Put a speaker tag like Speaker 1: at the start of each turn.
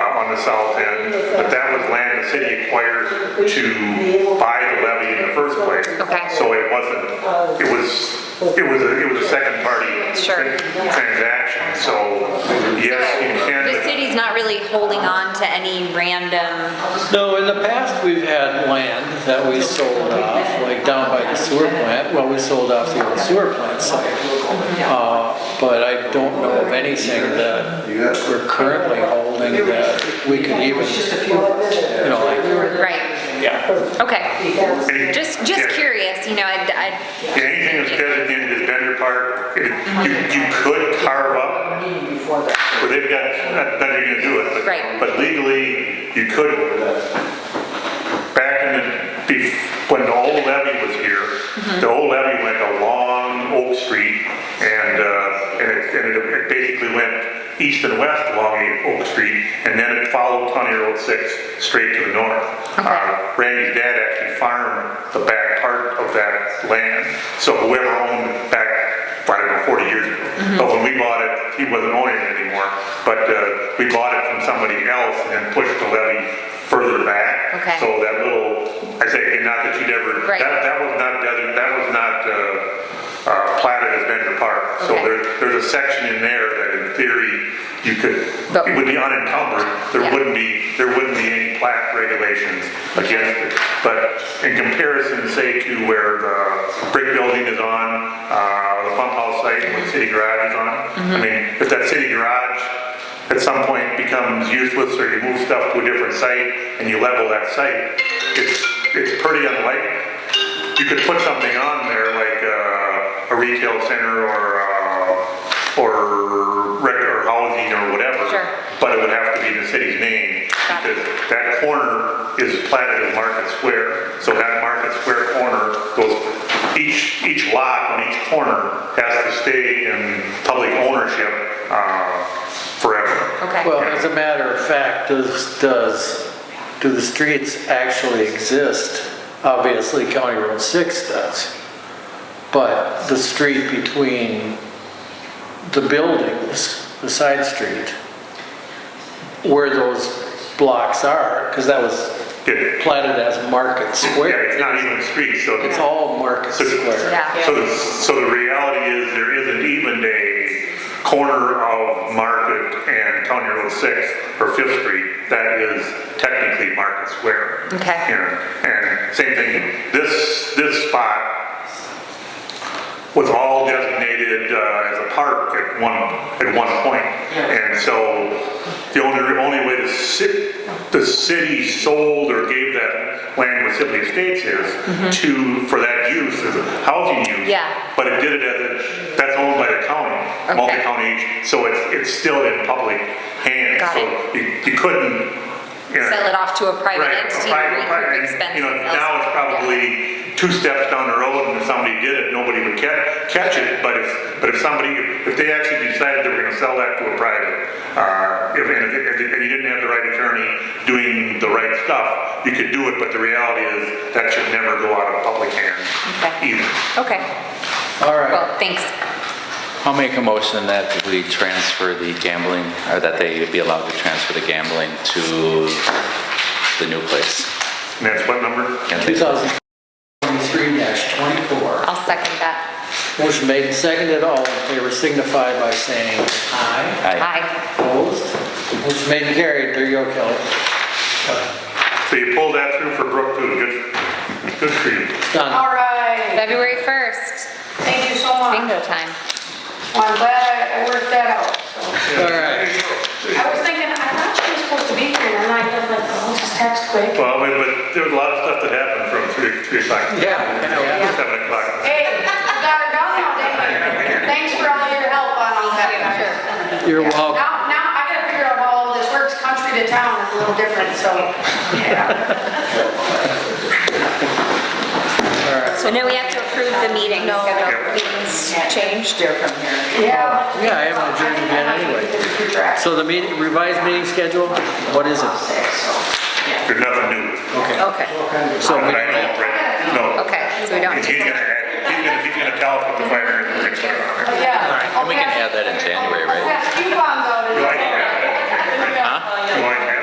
Speaker 1: uh, on the south end, but that was land the city acquired to buy the levy in the first place.
Speaker 2: Okay.
Speaker 1: So it wasn't, it was, it was, a- it was a second party
Speaker 2: Sure.
Speaker 1: transaction, so yes, you can.
Speaker 2: The
Speaker 1: but-
Speaker 2: city's not really holding on to any random,
Speaker 3: No, in the past, we've had land that we sold off, like down by the sewer plant, well, we sold off the old sewer plant site. Uh, But I don't know of anything that we're currently holding that we could even, you know, like,
Speaker 2: right,
Speaker 3: yeah.
Speaker 2: okay.
Speaker 1: Any-
Speaker 2: Just,
Speaker 1: yeah.
Speaker 2: just curious, you know, I,
Speaker 1: Yeah, Anything that's designated as vendor park, it- you, you could carve up Well, they've got, not that you're gonna do it, but.
Speaker 2: Right.
Speaker 1: But legally, you could, back in the, bef- when the old levy was here,
Speaker 2: Mm-hmm.
Speaker 1: the old levy went along Oak Street and, uh, and it, and it- it basically went east and west along Oak Street, and then it followed County Road Six straight to the north.
Speaker 2: Okay.
Speaker 1: Uh, Randy's dad actually farmed the back part of that land. So whoever owned back, I don't know, 40 years ago.
Speaker 2: Mm-hmm.
Speaker 1: But when we bought it, he wasn't owning it anymore. But uh, we bought it from somebody else and then pushed the levy further back.
Speaker 2: Okay.
Speaker 1: So that little, I say, and not that you'd ever,
Speaker 2: Right.
Speaker 1: that, that was not, desert- that was not uh, uh, platted as Bender Park. So
Speaker 2: Okay.
Speaker 1: there, there's a section in there that in theory, you could,
Speaker 2: But-
Speaker 1: it would be unencumbered. There
Speaker 2: Yeah.
Speaker 1: wouldn't wouldn't be, there wouldn't be any plat regulations against it. But in comparison, say to where the brick building is on, uh, the pump house site, and the city garage is on, I
Speaker 2: Mm-hmm.
Speaker 1: mean, if that city garage at some point becomes useless, or you move stuff to a different site, and you level that site, it's, it's pretty unlikely. You could put something on there like uh, a retail center or, uh, or rec, or housing or whatever.
Speaker 2: Sure.
Speaker 1: But it would have to be in the city's name,
Speaker 2: Got it.
Speaker 1: because that corner is platted as Market Square. So that Market Square corner goes, each, each lot on each corner has to stay in public ownership uh, forever.
Speaker 2: okay.
Speaker 3: Well, as a matter of fact, does, does, do the streets actually exist? Obviously, County Road 6 does. But the street between the buildings, the side street, where those blocks are, because that was
Speaker 1: It-
Speaker 3: planted as Market
Speaker 1: Yeah,
Speaker 3: Square.
Speaker 1: it's not even streets, so.
Speaker 3: It's all Market Square.
Speaker 2: Yeah.
Speaker 1: So, the- so the reality is there isn't even a corner of Market and County Road 6 or Fifth Street that is technically Market Square.
Speaker 2: Okay.
Speaker 1: And, and same thing, this, this spot was all designated uh, as a park at one, at one point. And so the only, only way the ci, the city sold or gave that land with Sibley Estates is to, for that use, as a housing use.
Speaker 2: Mm-hmm. Yeah.
Speaker 1: But it did it as, a- that's owned by the county, multi-county, so it's, it's still in public hands.
Speaker 2: Got
Speaker 1: So
Speaker 2: it.
Speaker 1: You you couldn't, you know.
Speaker 2: Sell it off to a private
Speaker 1: Right,
Speaker 2: entity,
Speaker 1: private-
Speaker 2: recoup
Speaker 1: private-
Speaker 2: expenses.
Speaker 1: You know, now it's
Speaker 2: elsewhere.
Speaker 1: probably two steps down the road, and if somebody did it, nobody would catch, catch it, but if, but if somebody, if they actually decided they were gonna sell that to a private, uh, if, and, if- and you didn't have the right attorney doing the right stuff, you could do it, but the reality is, that should never go out of public hands
Speaker 2: Okay.
Speaker 1: either.
Speaker 2: Yeah. Okay,
Speaker 3: All right.
Speaker 2: well, thanks.
Speaker 4: I'll make a motion that we transfer the gambling, or that they be allowed to transfer the gambling to the new place.
Speaker 1: And that's what number?
Speaker 3: 2023-24.
Speaker 2: I'll second that.
Speaker 3: Motion made and seconded, all in favor signify by saying aye.
Speaker 4: Aye.
Speaker 2: Aye.
Speaker 3: Opposed? Motion made and carried, there you go, Kelly.
Speaker 1: So you pulled that through for Brook too, good, good for you.
Speaker 3: Done.
Speaker 5: All right,
Speaker 2: February 1st,
Speaker 5: thank you so much.
Speaker 2: bingo time.
Speaker 5: Well, I'm glad I I worked that out. so.
Speaker 3: All right.
Speaker 5: I was thinking, I thought she was supposed to be here, and I was like, oh, I'll just text quick.
Speaker 1: Well, but, but there was a lot of stuff that happened from three, three o'clock.
Speaker 3: Yeah, yeah.
Speaker 1: Seven o'clock.
Speaker 5: Hey, you got her done all day. Thanks for all your help on all that, guys.
Speaker 3: You're welcome.
Speaker 5: Now, now I gotta figure out how all this works, country to town is a little different, so, yeah.
Speaker 2: So now we have to approve the meeting schedule. Meetings changed.
Speaker 5: Yeah,
Speaker 3: Yeah, I haven't adjourned
Speaker 5: I think
Speaker 3: yet
Speaker 5: I might
Speaker 3: anyway.
Speaker 5: need to do your draft.
Speaker 3: So the meeting, revised meeting schedule, what is it?
Speaker 1: There's nothing new.
Speaker 2: Okay,
Speaker 3: So
Speaker 1: But I
Speaker 3: we-
Speaker 1: know, right? No.
Speaker 2: okay, so we don't.
Speaker 1: He's
Speaker 2: need
Speaker 1: gonna,
Speaker 2: to-
Speaker 1: he's gonna, he's gonna tell us what the fire is going to
Speaker 5: But yeah.
Speaker 4: And we can add that in January, right?
Speaker 5: I'll pass coupons out.
Speaker 1: You like that?
Speaker 5: Yeah.
Speaker 1: Going